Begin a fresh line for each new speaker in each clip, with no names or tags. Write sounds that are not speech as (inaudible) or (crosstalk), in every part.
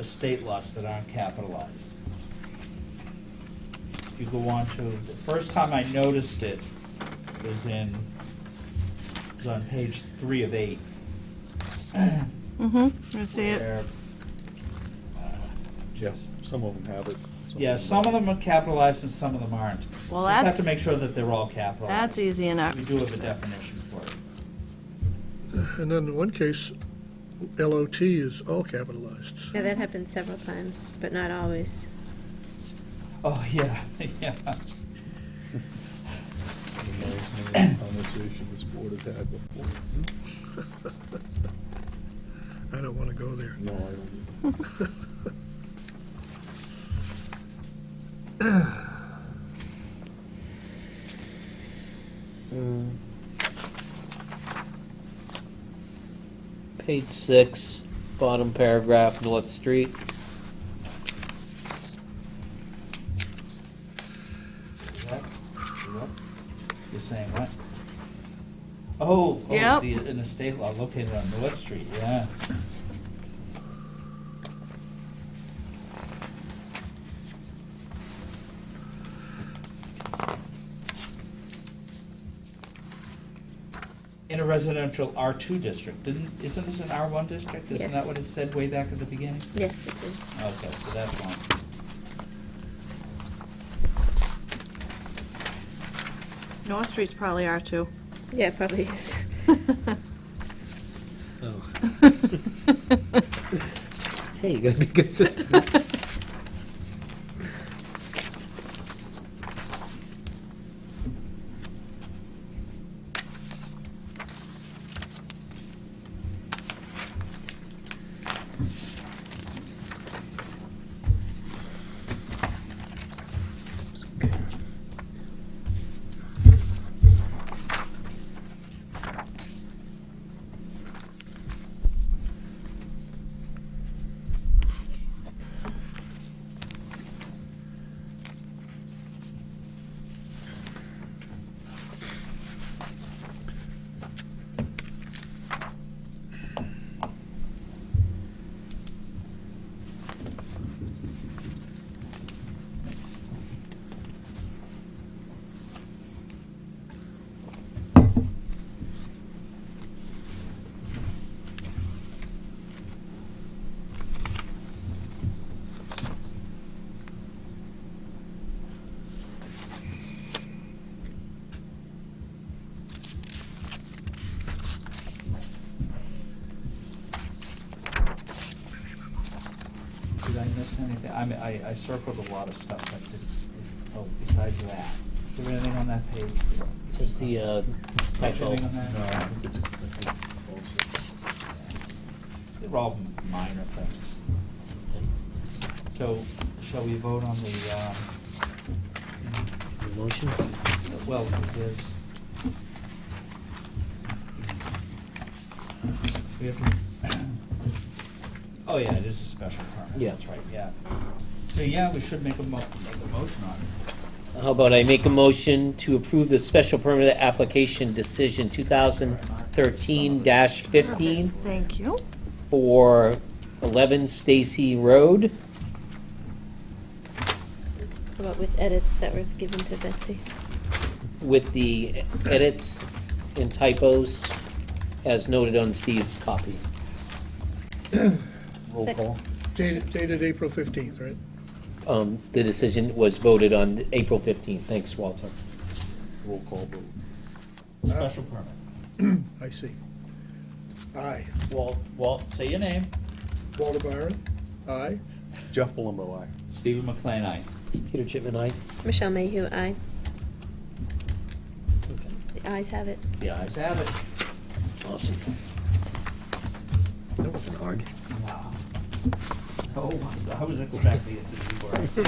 estate lots that aren't capitalized. If you go on to, the first time I noticed it was in, was on page three of eight.
Mm-hmm, I see it.
where, uh,
Yes, some of them have it.
Yeah, some of them are capitalized and some of them aren't.
Well,
Just have
that's-
to make sure that they're all capitalized.
That's easy enough.
We do have a definition for it.
And then in one case, LOT is all capitalized.
Yeah, that happened several times, but not always.
Oh, yeah, (laughs) yeah.
Conversation this board has had before.
I don't want to go there.
No, I don't.
Page six, bottom paragraph, North Street.
What? What? You're saying what? Oh, oh,
Yep.
the, an estate lot located on North Street, yeah. In a residential R two district, didn't, isn't this an R one district? Isn't that
Yes.
what it said way back at the beginning?
Yes, it did.
Okay, so that's one.
North Street's probably R2.
Yeah, it probably (laughs) is.
Oh. (laughs) Hey, you gotta be consistent.
Did I miss anything? I mean, I, I circled a lot of stuff, but did, is, oh, besides that, is there anything on that page?
Just the uh,
Is there
typo.
anything on that?
No, I think it's- I think
Yeah. They were all minor things. So, shall we vote on the, um,
Your Motion?
well, there's. We have to, oh yeah, it is a special permit.
Yeah.
That's right, yeah. So, yeah, we should make a mo- make a motion on it.
How about I make a motion to approve the special permit application decision two thousand thirteen fifteen
Thank you.
for eleven Stacy Road?
How about with edits that were given to Betsy?
with the edits and typos as noted on Steve's copy.
it's Roll call.
Dated dated April 15th, right?
Um, The decision was voted on April 15th. Thanks, Walter.
Roll call vote.
Special permit.
I see. Aye.
Walt, Walt, say your name.
Walter Byron? Aye.
Jeff Palumbo, aye.
Stephen McLean, aye.
Peter Chipman, aye.
Michelle Mayhew, aye. The ayes have it.
The ayes have it.
Awesome. That wasn't hard.
Wow. Oh, I was expecting it to be worse.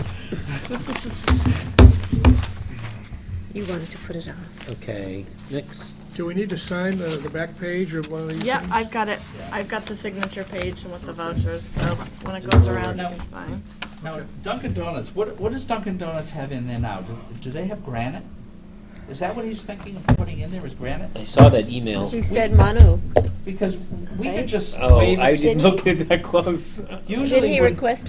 You wanted to put it off.
Okay, next.
Do we need to sign uh, the back page of one of these?
Yep,
things?
I've got it. I've got the signature page and with the vouchers, so when it goes around, you can sign.
Now, Dunkin' Donuts, what, what does Dunkin' Donuts have in there now? Do, do they have granite? Is that what he's thinking of putting in there, is granite?
I saw that email.
He said mono.
Because we
Right.
could just
Oh,
waive
I
it.
Did
didn't
he-
look at that close.
Usually
Did he
when-
request